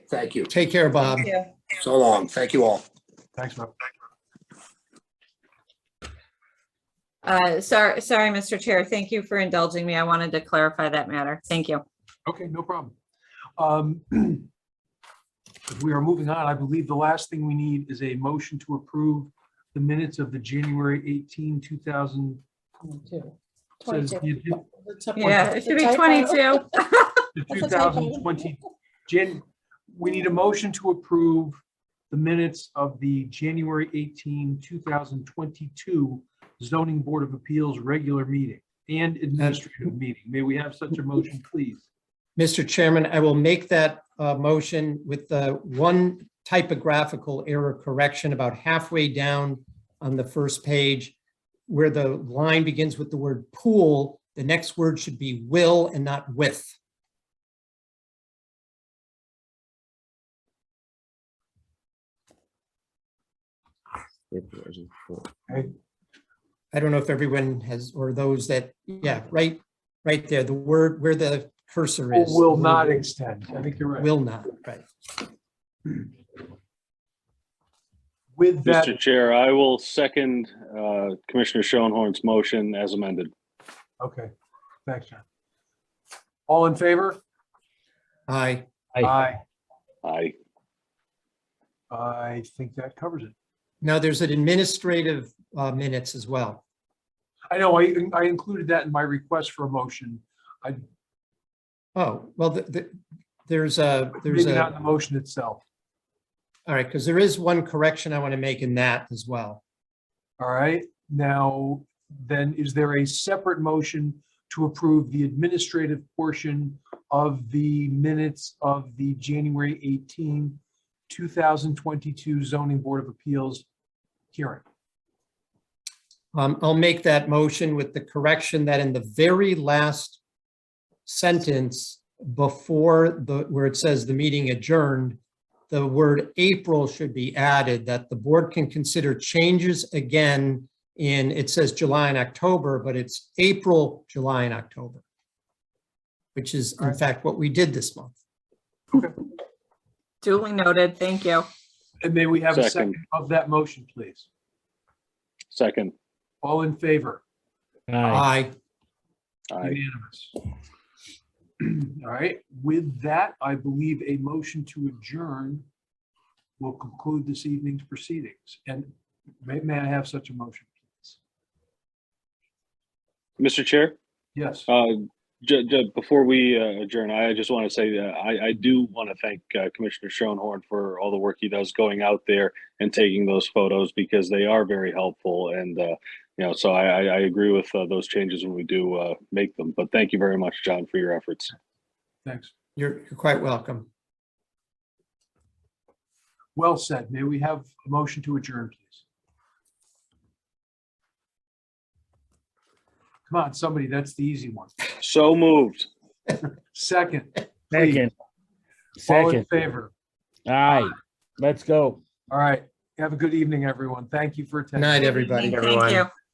Thank you. Take care, Bob. Yeah. So long. Thank you all. Thanks, Bob. Uh, sorry, sorry, Mr. Chair. Thank you for indulging me. I wanted to clarify that matter. Thank you. Okay, no problem. Um, If we are moving on, I believe the last thing we need is a motion to approve the minutes of the January 18, 2000. Twenty-two. says Twenty-two. the agen- That's a- Yeah, it should be Typo. 22. the That's a typo. 2020, Jan, we need a motion to approve the minutes of the January 18, 2022 zoning board of appeals regular meeting and administrative meeting. May we have such a motion, please? Mr. Chairman, I will make that uh, motion with the one typographical error correction about halfway down on the first page, where the line begins with the word pool, the next word should be will and not with. I don't know if everyone has, or those that, yeah, right, right there, the word where the cursor is. Will not extend. I think you're right. Will not, right. With that, Mr. Chair, I will second uh, Commissioner Schoenhorn's motion as amended. okay, thanks, John. All in favor? Aye. Aye. Aye. I think that covers it. Now, there's an administrative uh, minutes as well. I know, I, I included that in my request for a motion. Oh, well, the- the- there's a, there's Maybe not in a, the motion itself. all right, because there is one correction I want to make in that as well. All right, now, then is there a separate motion to approve the administrative portion of the minutes of the January 18, 2022 zoning board of appeals hearing? Um, I'll make that motion with the correction that in the very last sentence before the, where it says the meeting adjourned, the word April should be added, that the board can consider changes again in, it says July and October, but it's April, July and October, which is in Alright. fact what we did this month. Duly noted. Thank you. And may we have a Second. second of that motion, please? Second. All in favor? Aye. Aye. Unanimous. All right, with that, I believe a motion to adjourn will conclude this evening's proceedings. And may, may I have such a motion, please? Mr. Chair, Yes, uh, ju- ju- before we uh, adjourn, I just want to say that I, I do want to thank uh, Commissioner Schoenhorn for all the work he does going out there and taking those photos because they are very helpful. And, uh, you know, so I, I, I agree with uh, those changes when we do uh, make them. But thank you very much, John, for your efforts. thanks. You're you're quite welcome. Well said. May we have a motion to adjourn, please? Come on, somebody, that's the easy one. So moved. Second, please. Second. all in Second. favor. All right, let's go. All right, have a good evening, everyone. Thank you for Good attending. night, everybody. Thank you.